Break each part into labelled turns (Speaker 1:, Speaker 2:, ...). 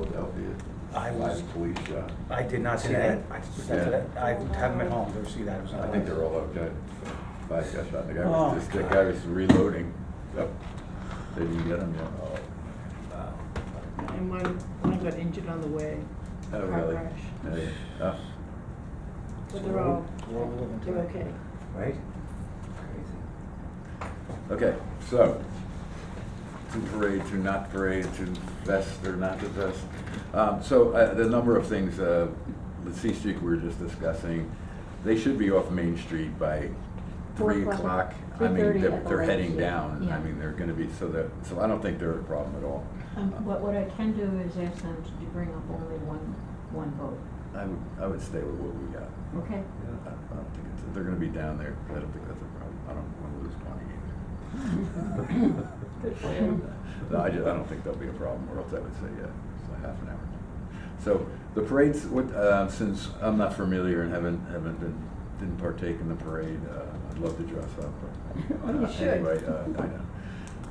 Speaker 1: the
Speaker 2: I was-
Speaker 1: live police shot.
Speaker 2: I did not see
Speaker 3: Today?
Speaker 2: that. I, that's it. I haven't been home to see that. It was
Speaker 1: I think they're all okay. Five shot shot, the guy
Speaker 3: Oh,
Speaker 1: was just, the guy was reloading. Yep. They didn't get him yet. Oh,
Speaker 2: Wow.
Speaker 3: And one, one got injured on the way.
Speaker 1: Oh,
Speaker 3: Car
Speaker 1: really?
Speaker 3: crash.
Speaker 1: Yeah, yeah. Oh,
Speaker 3: But they're all,
Speaker 2: We're all living
Speaker 3: they're
Speaker 2: together.
Speaker 3: okay.
Speaker 2: Right?
Speaker 1: Okay, so, to parade, to not parade, to vest or not to vest. Um, So, uh, the number of things, uh, the C Street we were just discussing, they should be off Main Street by
Speaker 4: Four
Speaker 1: three
Speaker 4: o'clock.
Speaker 1: o'clock. I mean,
Speaker 4: 3:30
Speaker 1: they're,
Speaker 4: at the
Speaker 1: they're heading
Speaker 4: latest,
Speaker 1: down, I
Speaker 4: yeah.
Speaker 1: mean, they're gonna be, so that, so I don't think they're a problem at all.
Speaker 4: Um, What, what I can do is ask them to do- bring up only one, one vote,
Speaker 1: I would, I would stay with what we got.
Speaker 4: okay?
Speaker 1: I I don't think it's, they're gonna be down there, I don't think that's a problem, I don't wanna lose money either.
Speaker 4: Good for you.
Speaker 1: No, I just, I don't think there'll be a problem, or else I would say, yeah, it's like half an hour. So, the parades, what, uh, since I'm not familiar and haven't, haven't been, didn't partake in the parade, uh, I'd love to dress up, but.
Speaker 4: You
Speaker 1: uh,
Speaker 4: should.
Speaker 1: Anyway, uh, I know.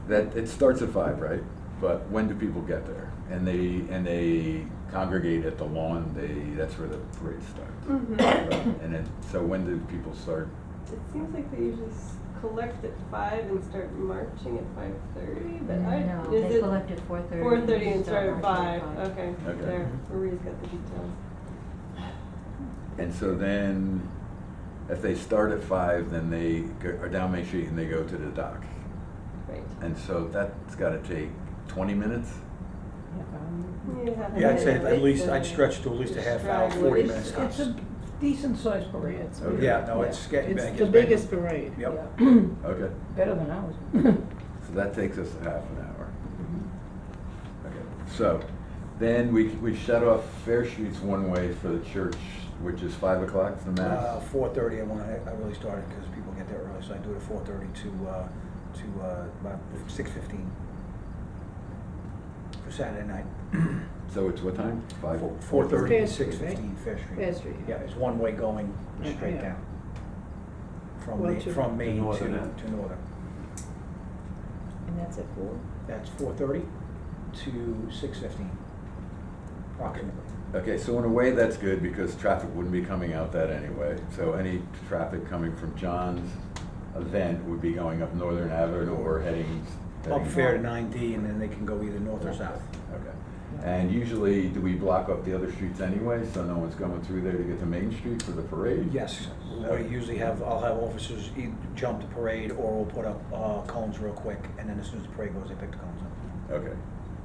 Speaker 1: That, it starts at five, right? But when do people get there? And they, and they congregate at the lawn, they, that's where the parade starts.
Speaker 5: Mhm.
Speaker 4: Mm-hmm.
Speaker 1: Right, And then, so when do people start?
Speaker 5: It seems like they usually s- collect at five and start marching at five thirty, but I,
Speaker 4: No,
Speaker 5: is
Speaker 4: uh, they
Speaker 5: it?
Speaker 4: collected four thirty.
Speaker 5: Four thirty and start at five, okay,
Speaker 1: Okay.
Speaker 5: there,
Speaker 2: Mm-hmm.
Speaker 5: Marie's got the details.
Speaker 1: And so then, if they start at five, then they go- are down Main Street and they go to the dock.
Speaker 5: Right.
Speaker 2: Uh,
Speaker 1: And so that's gotta take twenty minutes?
Speaker 5: You have
Speaker 2: Yeah,
Speaker 5: a
Speaker 2: I'd say
Speaker 5: minute
Speaker 2: at least,
Speaker 5: break
Speaker 2: I'd
Speaker 5: there.
Speaker 2: stretch to at least a half hour,
Speaker 5: Stride
Speaker 2: forty
Speaker 5: with-
Speaker 2: minutes
Speaker 3: It's, it's a
Speaker 2: tops.
Speaker 3: decent sized parade. It's
Speaker 1: Okay.
Speaker 3: big.
Speaker 2: Oh, Yeah, no, it's getting big,
Speaker 3: It's the
Speaker 2: it's big.
Speaker 3: biggest parade.
Speaker 2: Yep.
Speaker 3: Yeah.
Speaker 1: Okay,
Speaker 3: Better than ours.
Speaker 1: so that takes us a half an hour.
Speaker 3: Mm-hmm.
Speaker 1: Okay, so then we, we shut off Fair Streets one way for the church, which is five o'clock for
Speaker 2: Uh,
Speaker 1: mass.
Speaker 2: four thirty, I want, I really started because people get there early, so I do it at four thirty to, uh, to, uh, about six fifteen. For Saturday night.
Speaker 1: So it's what time? Five?
Speaker 2: Four thirty to
Speaker 3: Fair Street,
Speaker 2: six fifteen, Fair Street.
Speaker 3: Fair Street.
Speaker 2: Yeah, it's one way going
Speaker 3: Yeah,
Speaker 2: straight
Speaker 3: yeah.
Speaker 2: down. From,
Speaker 3: Well,
Speaker 2: Ma-
Speaker 3: to-
Speaker 2: from Main to,
Speaker 6: northern end.
Speaker 2: to northern.
Speaker 3: And that's at four?
Speaker 2: That's four thirty to six fifteen, approximately.
Speaker 1: Okay, so in a way, that's good because traffic wouldn't be coming out that anyway. So any traffic coming from John's event would be going up Northern Avenue or heading.
Speaker 2: Up
Speaker 1: heading-
Speaker 2: Fair to nine D and then they can go either north or
Speaker 4: Yeah.
Speaker 2: south.
Speaker 1: Okay. And usually, do we block up the other streets anyway, so no one's going through there to get to Main Street for the parade?
Speaker 2: Yes, we usually have, I'll have officers e- jump the parade or we'll put up uh, cones real quick and then as soon as the parade goes, they pick the cones up.
Speaker 1: Okay,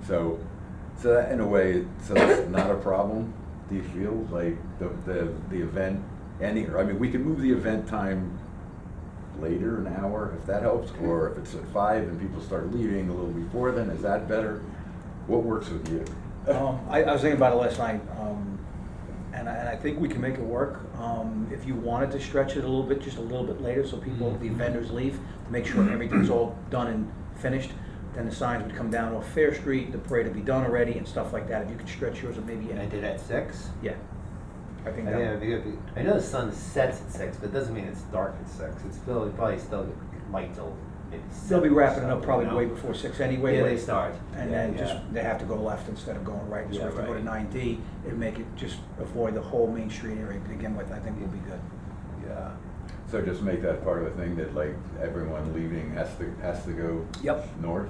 Speaker 1: so, so that in a way, so that's not a problem, do you feel, like, the, the, the event ending, or, I mean, we could move the event time later, an hour, if that helps, or if it's at five and people start leaving a little before then, is that better? What works with you?
Speaker 2: Um, I, I was thinking about it last night, um, and I, and I think we can make it work. Um, if you wanted to stretch it a little bit, just a little bit later, so people,
Speaker 6: Mm-hmm.
Speaker 2: the vendors leave, make sure everything's all done and finished, then the signs would come down off Fair Street, the parade would be done already and stuff like that. If you could stretch yours, it maybe,
Speaker 6: And I did at six.
Speaker 2: yeah. I
Speaker 6: I
Speaker 2: think
Speaker 6: mean,
Speaker 2: that.
Speaker 6: it'd be- it'd be- I know the sun sets at six, but it doesn't mean it's dark at six. It's still, it probably still might till maybe.
Speaker 2: They'll be
Speaker 6: seven or
Speaker 2: wrapping it up
Speaker 6: so,
Speaker 2: probably
Speaker 6: you know?
Speaker 2: way before six anyway.
Speaker 6: Yeah,
Speaker 2: but-
Speaker 6: they start.
Speaker 2: And
Speaker 6: Yeah,
Speaker 2: then
Speaker 6: yeah.
Speaker 2: just, they have to go left instead of going right, so
Speaker 6: Yeah,
Speaker 2: if they go to
Speaker 6: right.
Speaker 2: nine D, it'd make it, just avoid the whole Main Street area to begin with, I think we'll be good.
Speaker 1: Yeah, so just make that part of the thing that, like, everyone leaving has to, has to go
Speaker 2: Yep.
Speaker 1: north?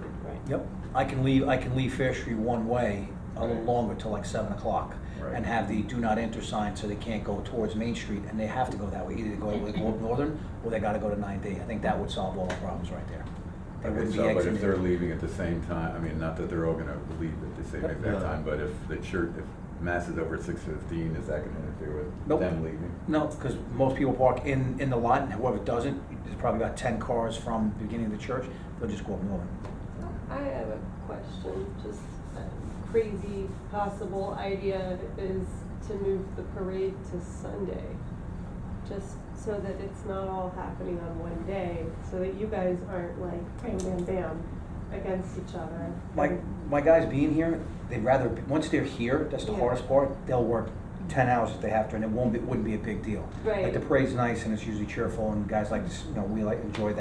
Speaker 2: Yep, I can leave, I can leave Fair Street one way a little
Speaker 1: Right.
Speaker 2: longer till like seven o'clock.
Speaker 1: Right.
Speaker 2: And have the do not enter sign so they can't go towards Main Street, and they have to go that way, either they go, they go up Northern, or they gotta go to nine D, I think that would solve all our problems right there. They
Speaker 1: Okay,
Speaker 2: wouldn't be
Speaker 1: so, but if
Speaker 2: exiting.
Speaker 1: they're leaving at the same time, I mean, not that they're all gonna leave at the same exact
Speaker 6: No.
Speaker 1: time, but if the church, if mass is over six fifteen, is that gonna interfere with
Speaker 2: Nope.
Speaker 1: them leaving?
Speaker 2: No, because most people park in, in the lot, and whoever doesn't, there's probably about ten cars from the beginning of the church, they'll just go up northern.
Speaker 5: I have a question, just a crazy possible idea is to move the parade to Sunday. Just so that it's not all happening on one day, so that you guys aren't like bam, bam, bam against each other.
Speaker 2: My, my guys being here, they'd rather, once they're here, that's the
Speaker 5: Yeah.
Speaker 2: hardest part, they'll work ten hours if they have to, and it won't, be- it wouldn't be a big deal. Like,
Speaker 5: Right.
Speaker 2: the parade's nice, and it's usually cheerful, and guys like, to s- you know, we like, enjoy that.